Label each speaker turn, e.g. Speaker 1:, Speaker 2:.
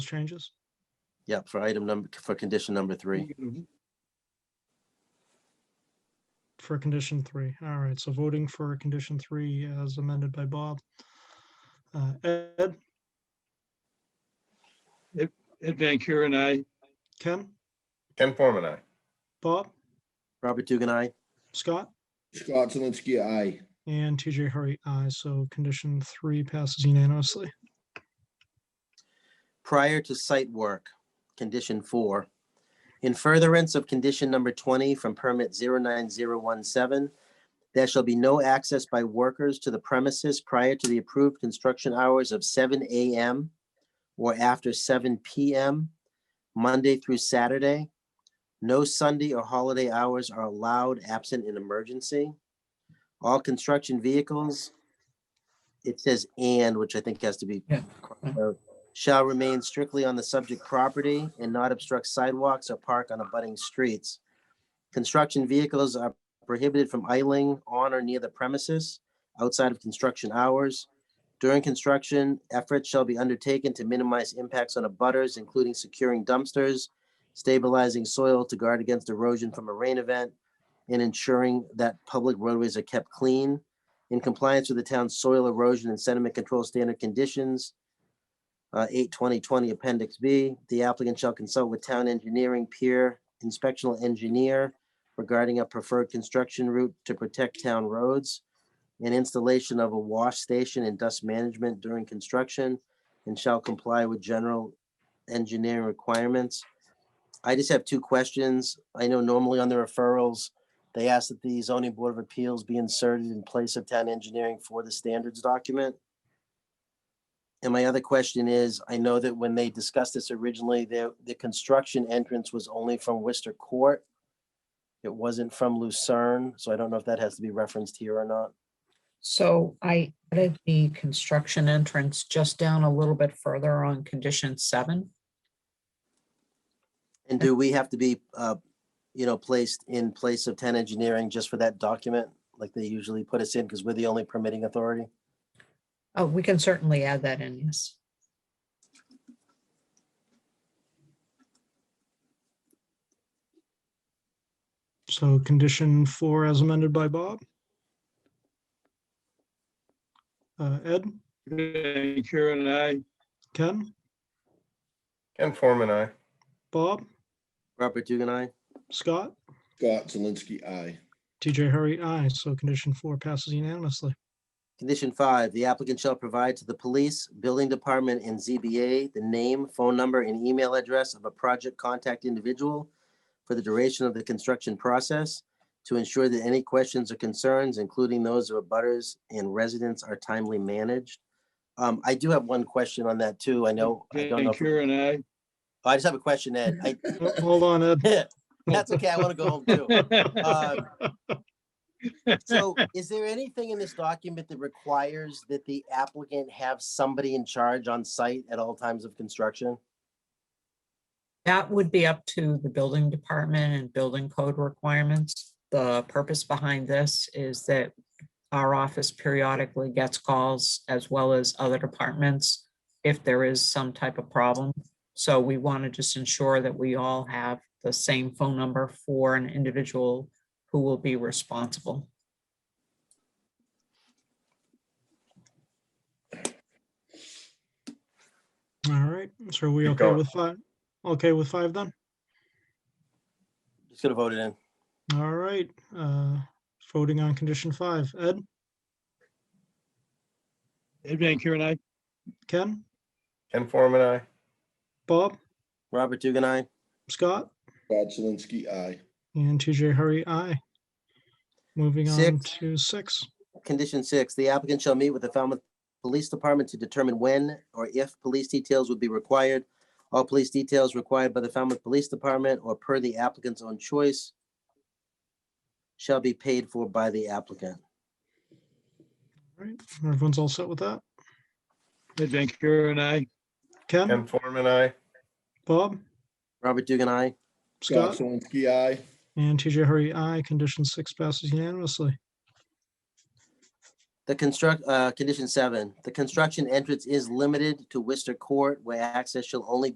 Speaker 1: changes?
Speaker 2: Yeah, for item number, for condition number three.
Speaker 1: For condition three, all right, so voting for condition three as amended by Bob. Uh, Ed,
Speaker 3: Ed Van Kuren, I.
Speaker 1: Ken,
Speaker 4: Ken Forman, aye.
Speaker 1: Bob,
Speaker 2: Robert Dugan, aye.
Speaker 1: Scott,
Speaker 5: Scott Zelinski, aye.
Speaker 1: and TJ Hurry, aye, so condition three passes unanimously.
Speaker 2: Prior to site work, condition four. In furtherance of condition number twenty from permit 09017, there shall be no access by workers to the premises prior to the approved construction hours of seven AM or after seven PM, Monday through Saturday. No Sunday or holiday hours are allowed absent an emergency. All construction vehicles, it says and, which I think has to be
Speaker 3: Yeah.
Speaker 2: crossed out, shall remain strictly on the subject property and not obstruct sidewalks or park on abutting streets. Construction vehicles are prohibited from idling on or near the premises outside of construction hours. During construction, efforts shall be undertaken to minimize impacts on abutters, including securing dumpsters, stabilizing soil to guard against erosion from a rain event, and ensuring that public roadways are kept clean in compliance with the town's soil erosion and sediment control standard conditions. Uh, eight twenty twenty appendix B, the applicant shall consult with town engineering peer inspectional engineer regarding a preferred construction route to protect town roads and installation of a wash station and dust management during construction and shall comply with general engineering requirements. I just have two questions. I know normally on the referrals, they ask that the zoning board of appeals be inserted in place of town engineering for the standards document. And my other question is, I know that when they discussed this originally, the, the construction entrance was only from Worcester Court. It wasn't from Lucerne, so I don't know if that has to be referenced here or not.
Speaker 6: So I added the construction entrance just down a little bit further on condition seven.
Speaker 2: And do we have to be, uh, you know, placed in place of town engineering just for that document? Like they usually put us in because we're the only permitting authority?
Speaker 6: Oh, we can certainly add that in, yes.
Speaker 1: So condition four as amended by Bob. Uh, Ed,
Speaker 3: Van Kuren, I.
Speaker 1: Ken,
Speaker 4: Ken Forman, aye.
Speaker 1: Bob,
Speaker 2: Robert Dugan, I.
Speaker 1: Scott,
Speaker 5: Scott Zelinski, aye.
Speaker 1: TJ Hurry, aye, so condition four passes unanimously.
Speaker 2: Condition five, the applicant shall provide to the police, building department, and ZBA the name, phone number, and email address of a project contact individual for the duration of the construction process to ensure that any questions or concerns, including those of abutters and residents, are timely managed. Um, I do have one question on that too. I know, I don't
Speaker 3: Van
Speaker 2: know. if-
Speaker 3: Kuren, I.
Speaker 2: I just have a question, Ed. I,
Speaker 1: Oh, Hold on, Ed.
Speaker 2: that's okay. I want to go home too. Uh, So is there anything in this document that requires that the applicant have somebody in charge on site at all times of construction?
Speaker 6: That would be up to the building department and building code requirements. The purpose behind this is that our office periodically gets calls as well as other departments if there is some type of problem. So we want to just ensure that we all have the same phone number for an individual who will be responsible.
Speaker 1: All right, so are we
Speaker 4: Keep
Speaker 1: okay
Speaker 4: going.
Speaker 1: with five? Okay with five then?
Speaker 2: Just gonna vote it in.
Speaker 1: All right, uh, voting on condition five. Ed,
Speaker 3: Ed Van Kuren, I.
Speaker 1: Ken,
Speaker 4: Ken Forman, aye.
Speaker 1: Bob,
Speaker 2: Robert Dugan, I.
Speaker 1: Scott,
Speaker 5: Scott Zelinski, aye.
Speaker 1: and TJ Hurry, aye. Moving on
Speaker 2: Six.
Speaker 1: to six.
Speaker 2: Condition six, the applicant shall meet with the Falmouth Police Department to determine when or if police details would be required. All police details required by the Falmouth Police Department or per the applicant's own choice shall be paid for by the applicant.
Speaker 1: All right, everyone's all set with that?
Speaker 3: Ed Van Kuren, I.
Speaker 1: Ken,
Speaker 4: Ken Forman, aye.
Speaker 1: Bob,
Speaker 2: Robert Dugan, I.
Speaker 1: Scott,
Speaker 5: Zelinski, aye.
Speaker 1: and TJ Hurry, aye. Condition six passes unanimously.
Speaker 2: The construct, uh, condition seven, the construction entrance is limited to Worcester Court where access shall only